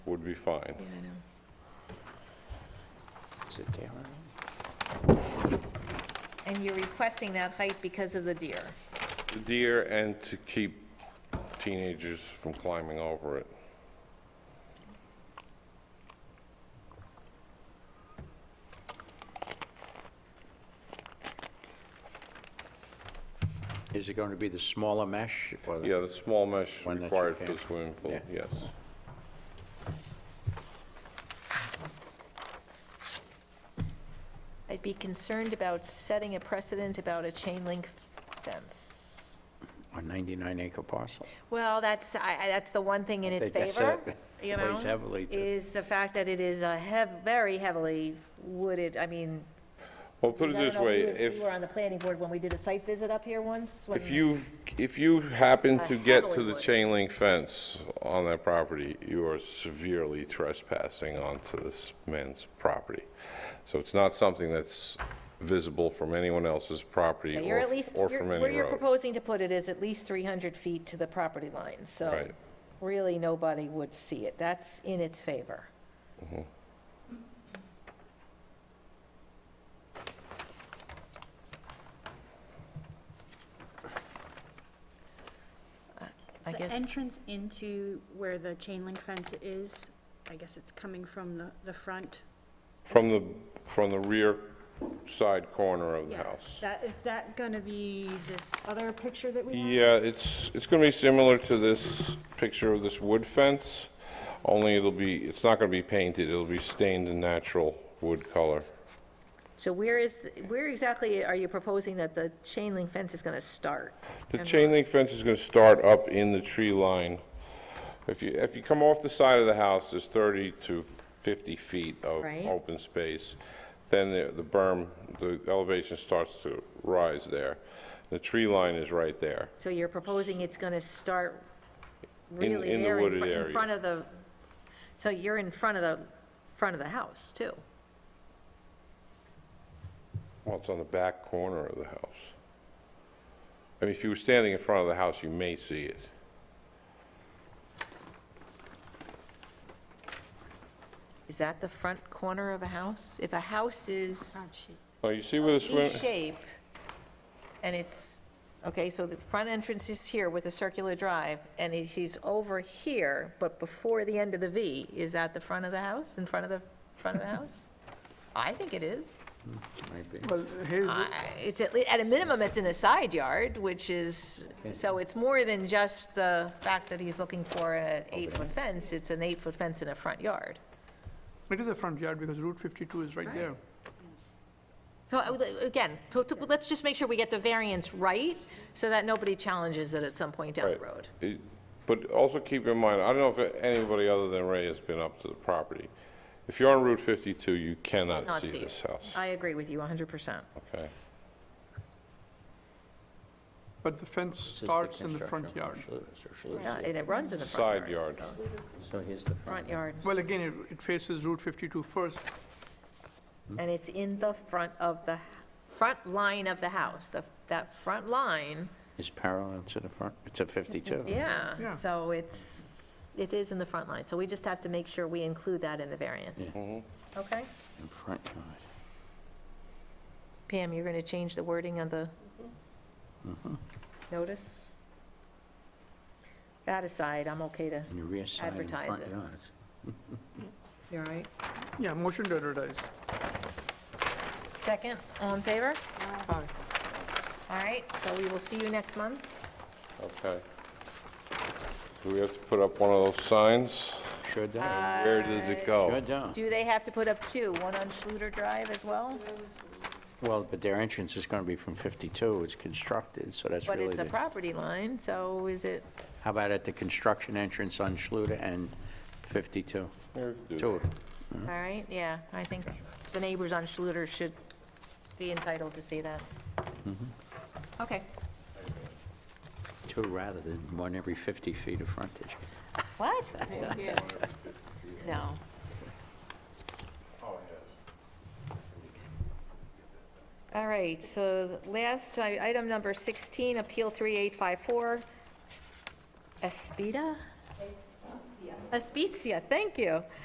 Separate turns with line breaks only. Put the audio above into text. would be fine.
Yeah, I know.
Is it there?
And you're requesting that height because of the deer.
Deer and to keep teenagers from climbing over it.
Is it going to be the smaller mesh or the-
Yeah, the small mesh
One that you
required for the
can't-
swimming pool,
yeah.
yes.
I'd be concerned about setting a precedent about a chain link fence.
a 99-acre parcel?
Well, that's, I, I- that's the one thing in
I
its
think that's
favor,
it.
you know?
Weighs heavily to-
Is the fact that it is a hev, very heavily wooded, I mean.
Well, put it
I don't
this
know
way,
you-
if,
You were on the planning board when we did a site visit up here once. when-
if you, if you happen
I
to get to
heavily
the
would.
chain link fence on that property, you are severely trespassing onto this man's property. So it's not something that's visible from anyone else's property
You're
or
at
f-
least,
or
you're-
from
where
any
you're
road.
proposing to put it is at least 300 feet to the property line, so
Right.
really nobody would see it. That's in its favor. I- I
The
guess,
entrance into where the chain link fence is, I guess it's coming from the, the front.
From the, from the rear side corner of the
Yeah.
house.
That, is that gonna be this other picture that we have?
Yeah, it's, it's gonna be similar to this picture of this wood fence, only it'll be, it's not gonna be painted, it'll be stained in natural wood color.
so where is, the- where exactly are you proposing that the chain link fence is going to start?
The
And
chain link fence is gonna start up in the tree line. If you, if you come off the side of the house, there's thirty to fifty feet of
Right.
open space. Then the the berm, the elevation starts to rise there. The tree line is right there.
So you're proposing it's going to start really
in the
there, in
wooded
fr- in
area.
front of the, so you're in front of the, front of the house, too?
Well, it's on the back corner of the house. I mean, if you were standing in front of the house, you may see it.
Is that the front corner of a house? If a house is
Front sheet.
Oh, you see where the swim,
E-shape, and it's, okay, so the front entrance is here with a circular drive, and he- he's over here, but before the end of the V, is that the front of the house, in front of the, front of the house? I think it is.
Might be.
Well, here's, the-
I- It's at least, at a minimum, it's in a side yard, which is, so it's more than just the fact that he's looking for an eight-foot fence, it's an eight-foot fence in a front yard.
it is a front yard because Route 52 is right there.
So I would- again, to- to- let's just make sure we get the variance right, so that nobody challenges it at some point down the
Right.
road.
It- But also keep in mind, I don't know if anybody other than Ray has been up to the property. If you're on Route 52, you cannot
Not
see
see it.
this house,
I agree with you 100%.
okay?
But the fence starts in the front yard.
Yeah, And it runs in the front
Side
yard.
yard.
so-
So here's the front.
Front yard,
Well, again, it it faces Route 52 first.
and it's in the front of the, front line of the house, the- that front line.
It's parallel to the front, it's a 52.
Yeah,
Yeah.
so it's, it is in the front line, so we just have to make sure we include that in the variance.
Mm-hmm.
Okay.
In front yard.
Pam, you're going to change the wording on the
Mm-hmm.
notice? That aside, I'm okay to,
And your rear side and
Advertise
front
it.
yard.
you all right?
Yeah, motion to advertise.
Second, all in favor?
Aye.
All right, so we will see you next month.
Okay. Do we have to put up one of those signs?
Sure does.
Where does it go?
Sure does.
Uh, Do they have to put up two, one on Schluter Drive as well?
Well, but their entrance is going to be from 52. It's constructed, so that's
But
really
it's a
the...
property line, so is it,
How about at the construction entrance on Schluter and 52?
Yeah, we can do
Two.
that.
Mm-hmm.
all right, yeah, I think the neighbors on Schluter should be entitled to see that.
Mm-hmm.
Okay,
Two rather than one every 50 feet of frontage.
what? No. All right, so the last, i- item number 16, Appeal 3854, Espida? Aspizia, thank you.